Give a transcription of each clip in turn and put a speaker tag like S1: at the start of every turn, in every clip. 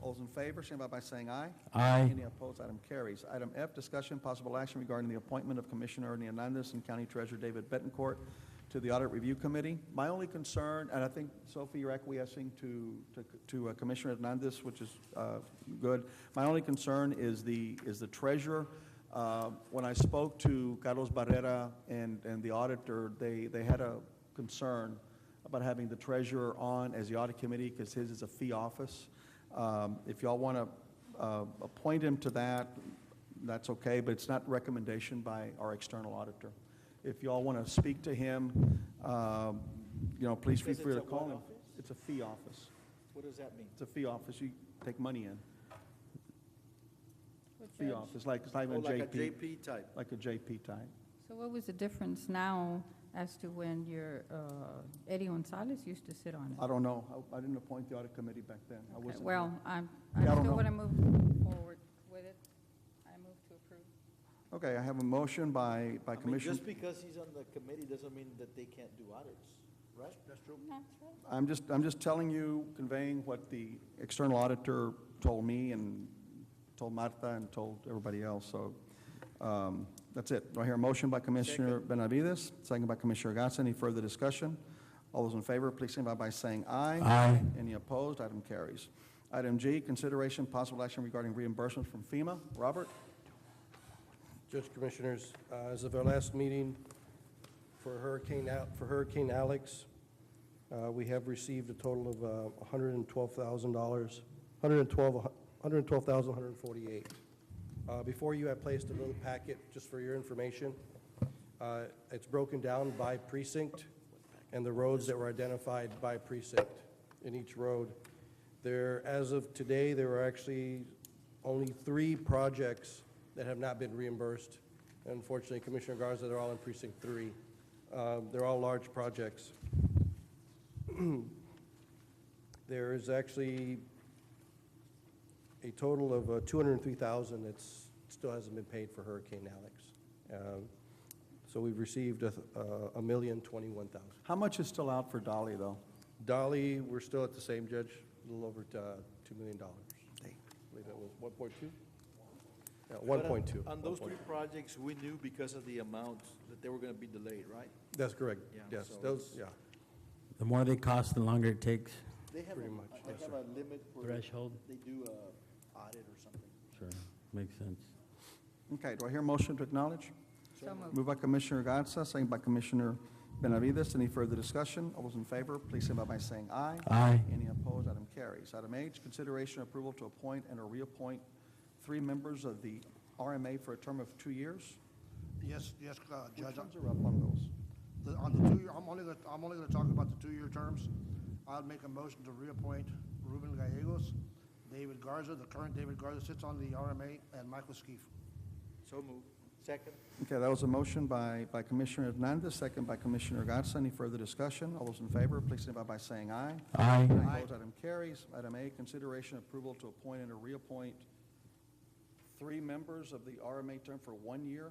S1: All those in favor, signify by saying aye.
S2: Aye.
S1: Any opposed, item carries. Item F, discussion, possible action regarding the appointment of Commissioner Ernie Hernandez and County Treasurer David Betancourt to the Audit Review Committee. My only concern, and I think, Sophie, you're acquiescing to, to- to uh, Commissioner Hernandez, which is uh, good. My only concern is the, is the treasurer. Uh, When I spoke to Carlos Barrera and, and the auditor, they, they had a concern about having the treasurer on as the audit committee, because his is a fee office. Um, If y'all want to uh, appoint him to that, that's okay, but it's not recommendation by our external auditor. If y'all want to speak to him, um, you know, please feel
S3: Because
S1: free to
S3: it's a what
S1: call him.
S3: office?
S1: It's a fee office.
S3: What does that mean?
S1: It's a fee office, you take money in.
S4: What
S1: Fee
S4: judge?
S1: office, like, it's not
S3: Oh,
S1: even
S3: like a
S1: JP,
S3: JP type.
S1: like a JP type.
S4: So what was the difference now as to when your, uh, Eddie Gonzalez used to sit on
S1: I
S4: it?
S1: don't know, I- I didn't appoint the audit committee back then. I
S4: Okay,
S1: wasn't.
S4: Well, I'm, I
S1: Yeah, I don't
S4: still
S1: know.
S4: want to move forward with it. I move to approve.
S1: Okay, I have a motion by, by
S3: I mean,
S1: Commissioner.
S3: just because he's on the committee doesn't mean that they can't do audits, right? That's true.
S1: I'm just, I'm just telling you, conveying what the external auditor told me and told Martha and told everybody else, so um, that's it. Do I hear a motion by Commissioner Benavides, second by Commissioner Gatz? Any further discussion? All those in favor, please signify by saying aye.
S2: Aye.
S1: Any opposed? Item carries. Item G, consideration possible action regarding reimbursement from FEMA. Robert?
S5: Judge Commissioners, uh, as of our last meeting for Hurricane, Al- for Hurricane Alex, uh, we have received a total of uh, $112,000, $112,148. Uh, Before you, I placed a little packet just for your information. Uh, It's broken down by precinct and the roads that were identified by precinct in each road. There, as of today, there are actually only three projects that have not been reimbursed. Unfortunately, Commissioner Garza, they're all in precinct three. Um, They're all large projects. There is actually a total of uh, 203,000 that's, still hasn't been paid for Hurricane Alex. Um, So we've received a th- uh, a million 21,000.
S1: How much is still out for Dolly, though?
S5: Dolly, we're still at the same judge, a little over uh, $2 million. I believe that was 1.2? Yeah, 1.2.
S3: On those three projects, we knew because of the amount that they were gonna be delayed, right?
S5: That's correct,
S3: Yeah,
S5: yes,
S3: so
S5: those, yeah.
S2: The more they cost, the longer it takes.
S3: They have,
S5: Pretty
S3: a-
S5: much,
S3: they
S5: yes,
S3: have
S5: sir.
S3: a limit for.
S2: Threshold.
S3: They do a audit or something.
S2: Sure. Makes sense.
S1: Okay, do I hear a motion to acknowledge?
S4: So moved.
S1: Moved by Commissioner Gatsa, second by Commissioner Benavides. Any further discussion? All those in favor, please signify by saying aye.
S2: Aye.
S1: Any opposed, item carries. Item H, consideration approval to appoint and or reappoint three members of the RMA for a term of two years.
S6: Yes, yes, uh,
S1: Which
S6: Judge,
S1: ones are up on those?
S6: the- on the two-year, I'm only, gonna I'm only gonna talk about the two-year terms. I'll make a motion to reappoint Ruben Gallegos, David Garza, the current David Garza sits on the RMA, and Michael Skeef.
S3: So move. Second?
S1: Okay, that was a motion by, by Commissioner Hernandez, second by Commissioner Gatsa. Any further discussion? All those in favor, please signify by saying aye.
S2: Aye.
S1: Any opposed, item carries. Item A, consideration approval to appoint and or reappoint three members of the RMA term for one year.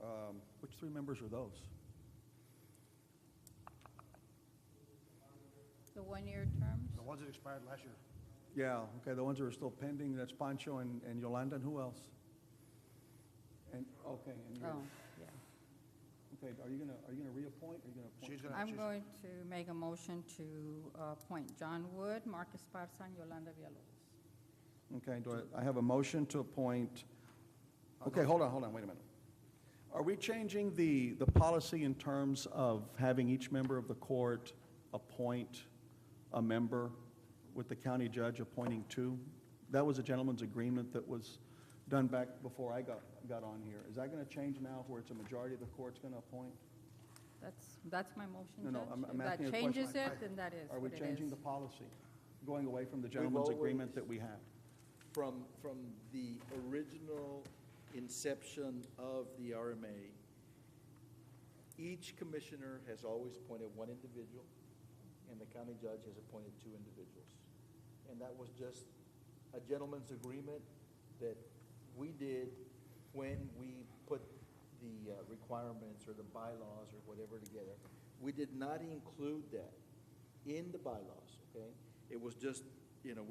S1: Um, Which three members are those?
S4: The one-year terms?
S6: The ones that expired last year.
S1: Yeah, okay, the ones that are still pending, that's Pancho and and Yolanda, and who else? And, okay, and you.
S4: Oh, yeah.
S1: Okay, are you gonna, are you gonna reappoint, or are you gonna appoint?
S6: She's gonna,
S4: I'm
S6: she's-
S4: going to make a motion to uh, appoint John Wood, Marcus Esparza, and Yolanda Villalobos.
S1: Okay, do I, I have a motion to appoint, okay, hold on, hold on, wait a minute. Are we changing the, the policy in terms of having each member of the court appoint a member with the county judge appointing two? That was a gentleman's agreement that was done back before I got, got on here. Is that gonna change now where it's a majority of the court's gonna appoint?
S4: That's, that's my motion,
S1: No,
S4: Judge.
S1: no, I'm- I'm asking a
S4: If that
S1: question.
S4: changes it,
S1: I-
S4: then that is
S1: Are we
S4: what it
S1: changing
S4: is.
S1: the policy, going away from the gentleman's agreement
S3: always-
S1: that we have?
S3: From, from the original inception of the RMA, each commissioner has always appointed one individual, and the county judge has appointed two individuals. And that was just a gentleman's agreement that we did when we put the uh, requirements or the bylaws or whatever together. We did not include that in the bylaws, okay? It was just, you know, we